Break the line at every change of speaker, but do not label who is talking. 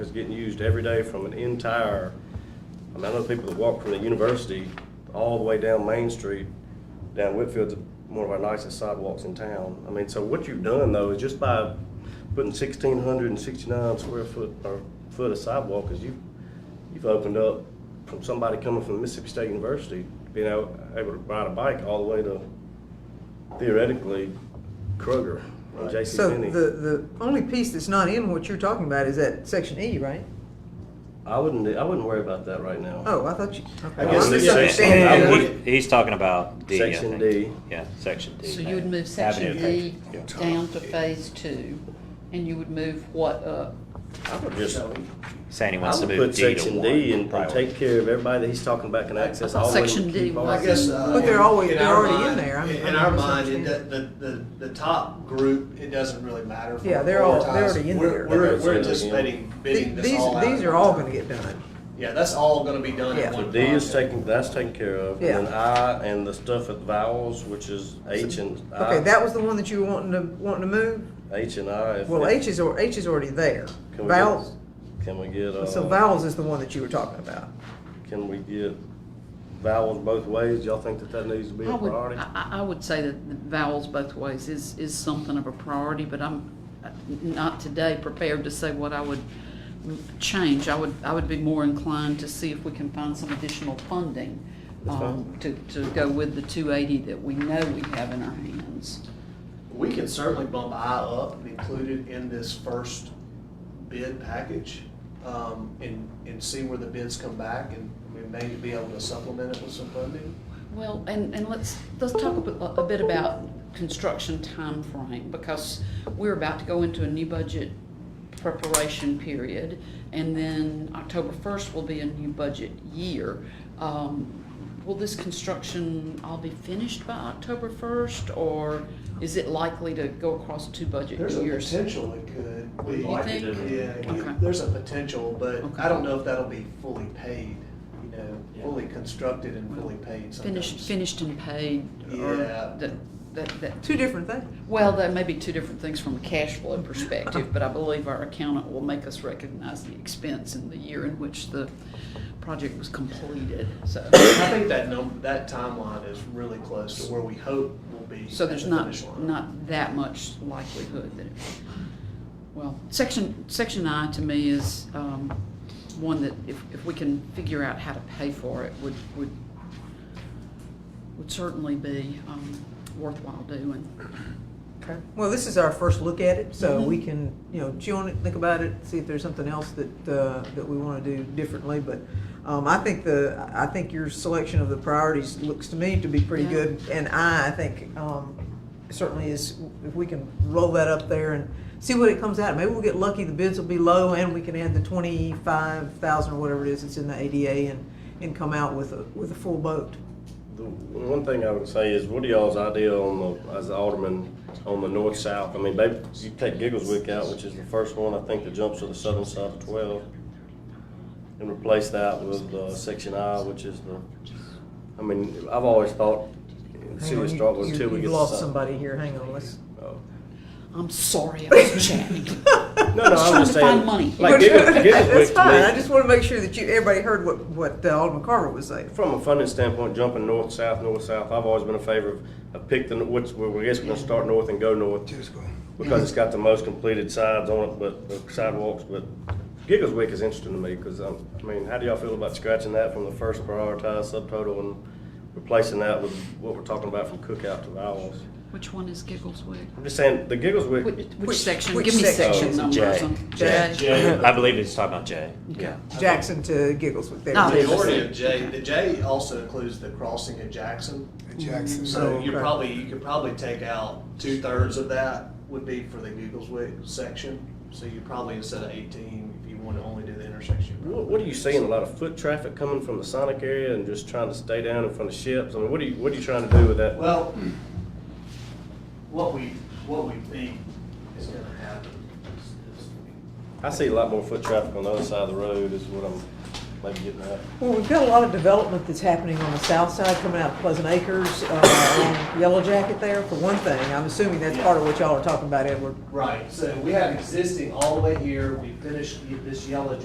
It's getting used every day from an entire, I mean, I know people that walk from the university all the way down Main Street, down Whitfield's one of our nicest sidewalks in town. I mean, so what you've done though is just by putting sixteen hundred and sixty-nine square foot, or foot of sidewalk, is you, you've opened up from somebody coming from Mississippi State University, being able, able to ride a bike all the way to theoretically Kroger and J.C.
So the,
Penney.
the only piece that's not in what you're talking about is that section E, right?
I wouldn't, I wouldn't worry about that right now.
Oh, I thought you.
I
okay.
guess
I'm
the
misunderstanding
section- E
it.
I would-
He- He's talking about D, I think.
Section D.
Yeah, section D.
So you would move section
Avenue.
D
Yeah.
down to phase two, and you would move what uh, up?
I would just,
Saying he
I
wants to
would
move
put
D to one.
section D and- and
priority.
take care of everybody that he's talking about can access all the way. to
Section D
Keith Bar.
was-
I guess. uh,
But they're always-
in
they're
our
already in
mind-
there. I'm-
In
I'm
our mind, it,
misunderstanding.
the, the, the top group, it doesn't really matter. if
Yeah,
we
they're all- they're
prioritize.
already in
We're-
there.
We're,
They're
we're
already in.
anticipating bidding
Th-
this
These,
all out.
these are all gonna get done.
Yeah, that's all gonna be done
Yeah.
in
So
one
D is
project.
taken, that's taken care of,
Yeah.
and then I and the stuff at vowels, which is H and I.
Okay, that was the one that you were wanting to, wanting to move?
H and I. if
Well,
it-
H is, al- H is already there.
can we get-
Vowels,
Can we get,
so
uh,
vowels is the one that you were talking about.
can we get vowels both ways? Y'all think that that needs to be
I
a
would,
priority?
I, I- I would say that the vowels both ways is, is something of a priority, but I'm uh, not today prepared to say what I would change. I would, I would be more inclined to see if we can find some additional funding,
That's
um, to, to go with the two eighty that we know we have in our hands.
We can certainly bump I up and include it in this first bid package, um, and, and see where the bids come back, and we may be able to supplement it with some funding.
Well, and, and let's, let's talk a bit, a bit about construction timeframe, because we're about to go into a new budget preparation period, and then October first will be a new budget year. Um, will this construction all be finished by October first, or is it likely to go across two budget
There's a
years?
potential it could be.
You think?
Yeah,
Okay.
it- there's a potential, but I
Okay.
don't know if that'll be fully paid, you know, fully constructed and fully paid sometimes.
Finished, finished and paid, or
Yeah.
that, that, that
Two different things.
Well, that may be two different things from a cash flow perspective, but I believe our accountant will make us recognize the expense in the year in which the project was completed, so.
I think that number, that timeline is really close to where we hope will be.
So
at
there's
the
not,
finish line.
not that much likelihood that it, well, section, section I to me is, um, one that if, if we can figure out how to pay for it would, would, would certainly be, um, worthwhile doing.
Okay. Well, this is our first look at it, so we can, you know, chew on it, think about it, see if there's something else that, uh, that we want to do differently. But um, I think the, I think your selection of the priorities looks to me to be pretty
Yeah.
good. And I, I think um, certainly is, if we can roll that up there and see what it comes out. Maybe we'll get lucky, the bids will be low, and we can add the twenty-five thousand or whatever it is that's in the ADA and, and come out with a, with a full boat.
The one thing I would say is, what are y'all's idea on the, as the alderman, on the north-south? I mean, maybe you take Giggleswick out, which is the first one, I think, that jumps to the southern side of twelve, and replace that with, uh, section I, which is the, I mean, I've always thought, the
Hang
city
on,
of
you-
Strasburg,
you-
until we get.
You've
to
lost
south-
somebody here, hang on, let's.
Oh.
I'm sorry, I was chatting.
No, no, I'm
trying
just
to find
saying,
money.
like Giggle- Giggleswick
That's
to
fine,
me-
I just want to make sure that you, everybody heard what, what uh, Alderman Carver was saying.
From a funding standpoint, jumping north, south, north, south, I've always been in favor of, of pick the, what's, well, I guess we're gonna start north and go north. Because it's got the most completed sides on it, but, the sidewalks, but Giggleswick is interesting to me, cause um, I mean, how do y'all feel about scratching that from the first prioritized subtotal and replacing that with what we're talking about from Cookout to Vowels?
Which one is Giggleswick?
I'm just saying, the
Which,
Giggleswick,
which section?
which
Give me
section?
section
Oh,
numbers.
J.
on-
J.
I believe he's talking about J.
Okay.
Jackson to Giggleswick there.
No.
The Majority of J, the J also includes the crossing at Jackson,
Jackson.
so you
Okay.
probably, you could probably take out two-thirds of that would be for the Googleswick section. So you probably, instead of eighteen, if you want to only do the intersection. you
what, what are you seeing, a lot of foot traffic coming from the Sonic area and just trying to stay down in front of ships? I mean, what are you, what are you trying to do with that?
Well, what we, what we think is gonna happen is, is
I see a lot more foot traffic on the other side of the road is what I'm, maybe getting that.
Well, we've got a lot of development that's happening on the south side, coming out Pleasant Acres, uh, along Yellow Jacket there, for one thing. I'm assuming that's part of what y'all are talking about, Edward.
Right, so we have existing all the way here, we finished this yellow